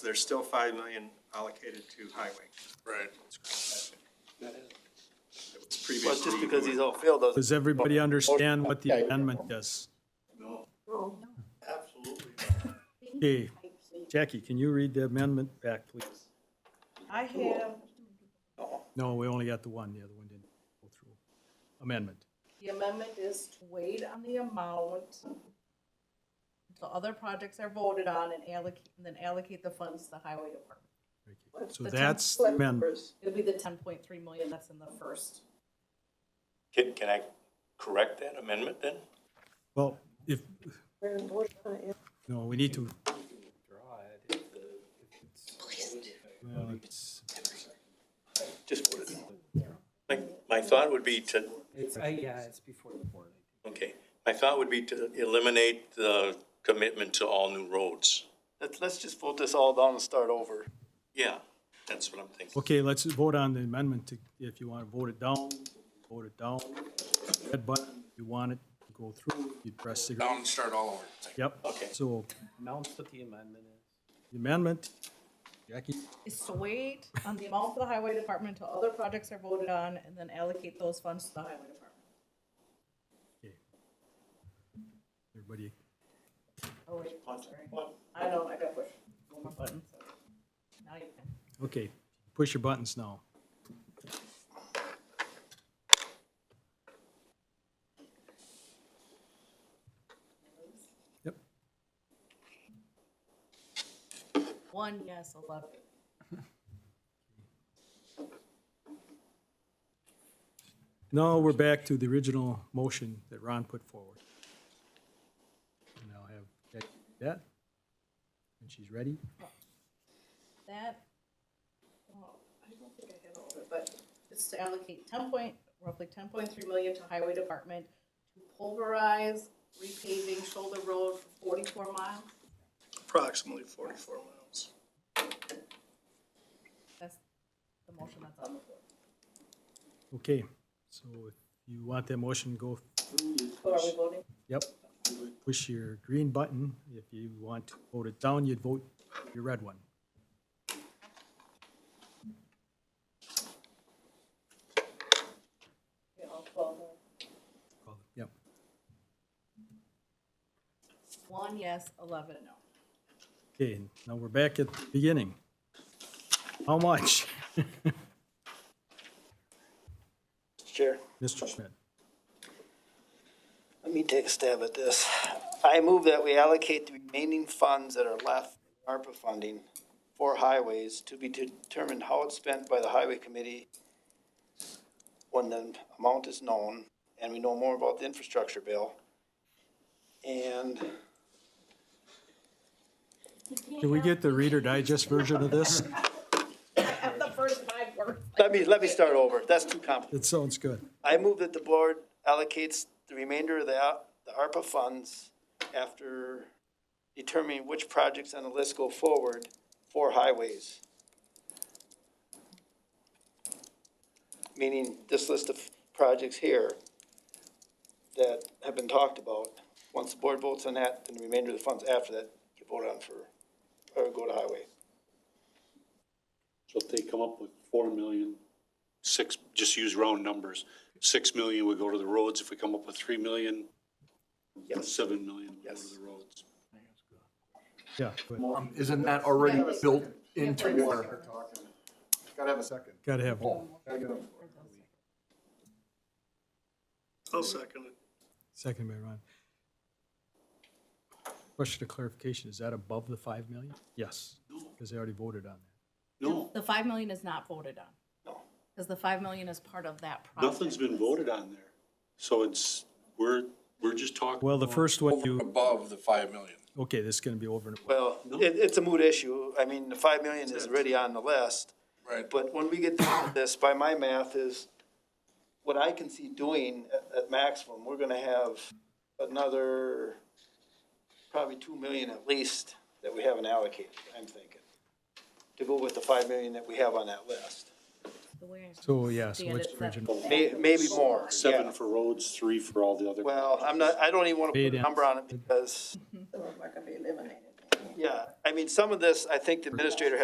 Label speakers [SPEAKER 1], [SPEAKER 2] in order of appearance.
[SPEAKER 1] There's still five million allocated to highway.
[SPEAKER 2] Right.
[SPEAKER 1] It's
[SPEAKER 3] Well, it's
[SPEAKER 1] previously.
[SPEAKER 3] just because these all failed doesn't.
[SPEAKER 4] Does everybody understand what the amendment does? Absolutely. Jackie, can you read the amendment back, please?
[SPEAKER 5] I have
[SPEAKER 4] No, we only got the one, the other one didn't go through. Amendment.
[SPEAKER 5] The amendment is to wait on the amount until other projects are voted on and allocate, and then allocate the funds to the highway department.
[SPEAKER 4] So
[SPEAKER 5] The
[SPEAKER 4] that's the
[SPEAKER 5] 10
[SPEAKER 4] amendment.
[SPEAKER 5] It'll be the ten point three million that's in the first.
[SPEAKER 2] Can, can I correct that amendment then?
[SPEAKER 4] Well, if, no, we need to. Well, it's-
[SPEAKER 2] Just put it. My, my thought would be to,
[SPEAKER 6] It's, I, yeah, it's before the board.
[SPEAKER 2] okay, my thought would be to eliminate the commitment to all new roads.
[SPEAKER 3] Let's, let's just vote this all down and start over.
[SPEAKER 2] Yeah, that's what I'm thinking.
[SPEAKER 4] Okay, let's vote on the amendment to, if you want to vote it down, vote it down. Red button, if you want it to go through, you press the.
[SPEAKER 7] Down and start all over.
[SPEAKER 4] Yep.
[SPEAKER 2] Okay.
[SPEAKER 4] So
[SPEAKER 6] Announce what the amendment is.
[SPEAKER 4] the amendment, Jackie,
[SPEAKER 5] Is to wait on the amount for the highway department until other projects are voted on and then allocate those funds to the highway department.
[SPEAKER 4] everybody,
[SPEAKER 5] Oh, wait, sorry. I know, I got pushed. One more button. Now you can.
[SPEAKER 4] okay, push your buttons now. Yep,
[SPEAKER 5] One, yes, eleven.
[SPEAKER 4] now we're back to the original motion that Ron put forward. And I'll have Jackie do that, when she's ready.
[SPEAKER 5] That, well, I don't think I had all of it, but it's to allocate ten point, roughly ten point three million to highway department to pulverize repaving shoulder road for forty-four miles.
[SPEAKER 1] Approximately forty-four miles.
[SPEAKER 5] That's the motion that's on the floor.
[SPEAKER 4] Okay, so if you want that motion, go,
[SPEAKER 5] So are we voting?
[SPEAKER 4] yep, push your green button. If you want to vote it down, you'd vote your red one.
[SPEAKER 5] Yeah, I'll call
[SPEAKER 4] Yep,
[SPEAKER 5] the- One yes, eleven no.
[SPEAKER 4] okay, now we're back at the beginning. How much,
[SPEAKER 3] Chair,
[SPEAKER 4] Mr. Schmidt?
[SPEAKER 3] let me take a stab at this. I move that we allocate the remaining funds that are left, in ARPA funding, for highways to be determined how it's spent by the highway committee when the amount is known and we know more about the infrastructure bill. And
[SPEAKER 4] Can we get the Reader Digest version of this?
[SPEAKER 5] At the first five words.
[SPEAKER 3] let me, let me start over. That's too complicated.
[SPEAKER 4] It sounds good.
[SPEAKER 3] I move that the board allocates the remainder of the, al- the ARPA funds after determining which projects on the list go forward for highways. Meaning this list of projects here that have been talked about. Once the board votes on that, then the remainder of the funds after that, you vote on for, or go to highway.
[SPEAKER 8] So if they come up with four million, six, just use round numbers, six million would go to the roads, if we come up with three million, seven million would go
[SPEAKER 3] Yes.
[SPEAKER 8] to the roads.
[SPEAKER 4] Yeah, but
[SPEAKER 7] Um, Isn't that already built into our?
[SPEAKER 9] Gotta have a second.
[SPEAKER 4] gotta have,
[SPEAKER 1] I'll second it.
[SPEAKER 4] second by Ron. Question of clarification, is that above the five million? Yes, because they already voted on that.
[SPEAKER 8] No,
[SPEAKER 5] The five million is not voted on.
[SPEAKER 3] No.
[SPEAKER 5] Cause the five million is part of that project.
[SPEAKER 8] nothing's been voted on there, so it's, we're, we're just talking.
[SPEAKER 4] Well, the first one you,
[SPEAKER 7] Above the five million.
[SPEAKER 4] okay, this is gonna be over and
[SPEAKER 3] Well, it, it's a moot issue. I mean, the five million is already on the list.
[SPEAKER 7] Right.
[SPEAKER 3] But when we get down to this, by my math is, what I can see doing at, at maximum, we're gonna have another probably two million at least that we haven't allocated, I'm thinking, to go with the five million that we have on that list.
[SPEAKER 5] The way I
[SPEAKER 4] So, yeah, so
[SPEAKER 5] understand
[SPEAKER 4] what's
[SPEAKER 5] it,
[SPEAKER 4] the
[SPEAKER 5] that-
[SPEAKER 4] original?
[SPEAKER 3] May, maybe more,
[SPEAKER 8] Seven
[SPEAKER 3] yeah.
[SPEAKER 8] for roads, three for all the other.
[SPEAKER 3] Well, I'm not, I don't even wanna put
[SPEAKER 4] Paid
[SPEAKER 3] a
[SPEAKER 4] in.
[SPEAKER 3] number on it because
[SPEAKER 5] So we're gonna be eliminated.
[SPEAKER 3] yeah, I mean, some of this, I think the administrator